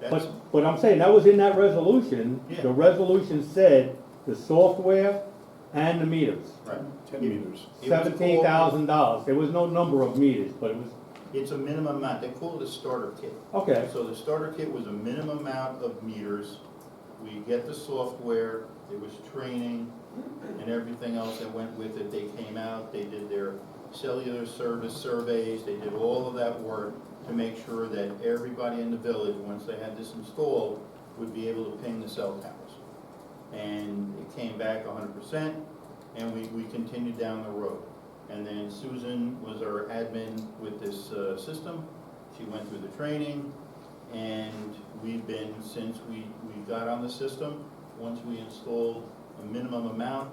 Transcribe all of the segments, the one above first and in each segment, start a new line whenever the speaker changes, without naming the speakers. That's,
But, but I'm saying, that was in that resolution.
Yeah.
The resolution said the software and the meters,
right,
ten meters.
It was
seventeen thousand dollars. There was no number of meters, but it was,
it's a minimum amount, they call it a starter kit.
okay,
So the starter kit was a minimum amount of meters, we get the software, there was training and everything else that went with it, they came out, they did their cellular service surveys, they did all of that work to make sure that everybody in the village, once they had this installed, would be able to ping the cell towers. And it came back hundred percent, and we, we continued down the road. And then Susan was our admin with this, uh, system, she went through the training, and we've been, since we, we got on the system, once we installed a minimum amount,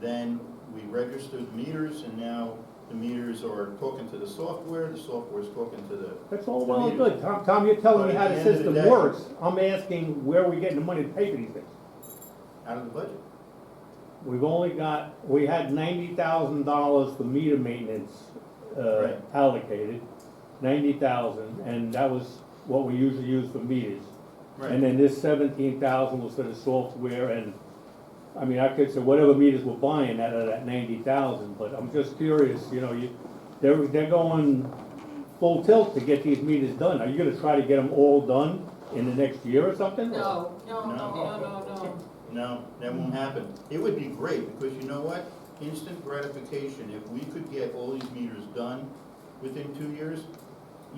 then we registered meters, and now the meters are talking to the software, the software's talking to the,
that's all well and good. Tom, Tom, you're telling me
But
how
at
the
the end of the
system
day-
works. I'm asking where are we getting the money to pay for these things?
out of the budget.
We've only got, we had ninety thousand dollars for meter maintenance, uh,
Right.
allocated, ninety thousand, and that was what we usually use for meters. And
Right,
then this seventeen thousand was for the software and, I mean, I could say whatever meters we're buying out of that ninety thousand, but I'm just curious, you know, you, they're, they're going full tilt to get these meters done. Are you gonna try to get them all done in the next year or something? or-
No, no, no,
No.
no, no, no.
no, that won't happen. It would be great, because you know what? Instant gratification, if we could get all these meters done within two years,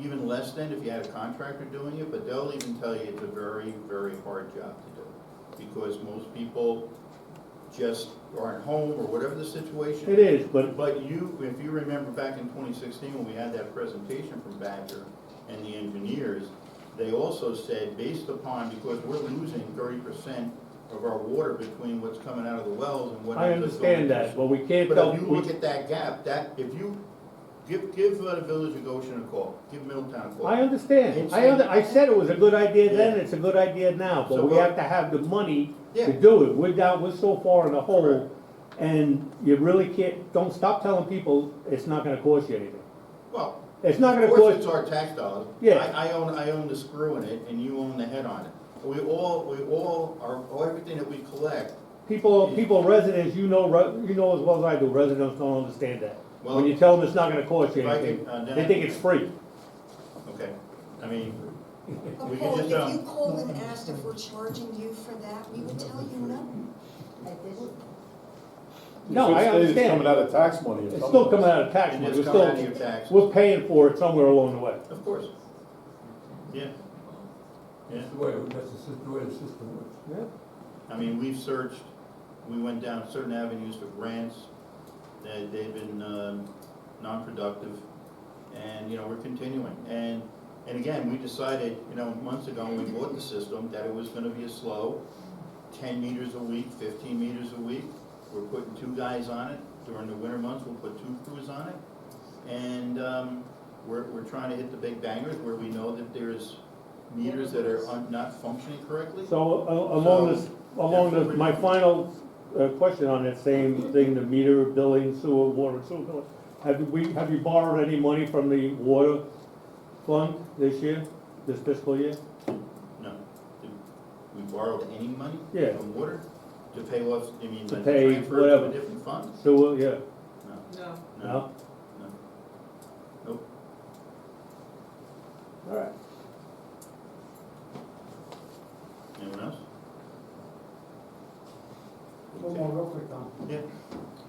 even less than if you had a contractor doing it, but they'll even tell you it's a very, very hard job to do. Because most people just aren't home, or whatever the situation.
It is, but,
But you, if you remember back in twenty sixteen, when we had that presentation from Badger and the engineers, they also said, based upon, because we're losing thirty percent of our water between what's coming out of the wells and what.
I
ends up going
understand that,
into-
but we can't tell,
But if you
we,
look at that gap, that, if you, give, give uh, the village of Goshen a call, give Middletown a call.
I understand, I under, I said it was a good idea then, it's a good idea now,
So
but we
what-
have to have the money
Yeah.
to do it, we're down, we're so far in the hole,
Correct.
and you really can't, don't, stop telling people it's not gonna cost you anything.
Well,
It's not gonna
Of course, it's
cost,
our tax dollars.
Yeah.
I, I own, I own the screw in it, and you own the head on it. We all, we all, our, everything that we collect
people, people, residents, you know, re- you know as well as I do, residents don't understand that. When
Well,
you tell them it's not gonna cost you
if I
anything,
could, uh,
they think it's free.
Okay, I mean, We
But
could
Paul, if
just,
you
um,
called and asked if we're charging you for that, we would tell you no.
No,
It should
I
say It's
understand.
coming out of tax money or something.
It's still coming out of tax
and
money,
it's
we're
coming out of
still,
your tax,
we're paying for it somewhere along the way.
of course. Yeah, yeah,
That's the way, that's the sys- the way the system works.
I mean, we've searched, we went down certain avenues for grants, that they've been, um, non-productive, and, you know, we're continuing. And, and again, we decided, you know, months ago when we bought the system, that it was gonna be a slow, ten meters a week, fifteen meters a week. We're putting two guys on it, during the winter months, we'll put two crews on it. And um, we're, we're trying to hit the big bangers where we know that there's meters that are un- not functioning correctly.
So a- along this, along the, my final uh, question on that same thing, the meter, billing, sewer, water, sewer. bill. Have we, have you borrowed any money from the water fund this year, this fiscal year?
No. Did We borrowed any money?
Yeah.
From water to pay off, I mean,
To
like
pay
transfer to
whatever.
a different fund?
Sewer, yeah,
No,
No.
no,
no?
no.
All right.
Anyone else?
One more real quick, Tom.
Yeah,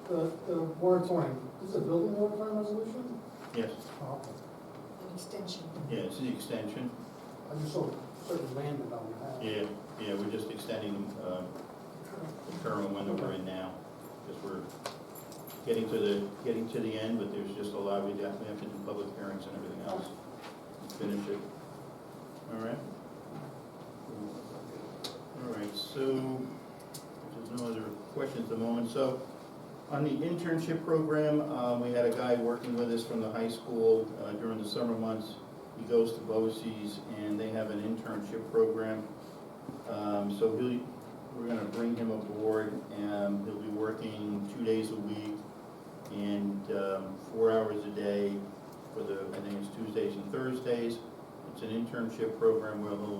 The, the moratorium, this is a building moratorium resolution?
yes,
Oh, okay.
An extension.
yeah, it's the extension.
I just saw certain land development.
Yeah, yeah, we're just extending the, um, the current window we're in now, because we're getting to the, getting to the end, but there's just a lot, we definitely have to do public hearings and everything else. Finish it. All right? All right, so, there's no other questions at the moment, so, on the internship program, uh, we had a guy working with us from the high school, uh, during the summer months. He goes to BOCES, and they have an internship program. Um, so he'll, we're gonna bring him aboard, and he'll be working two days a week and, um, four hours a day for the, I think it's Tuesdays and Thursdays. It's an internship program where he'll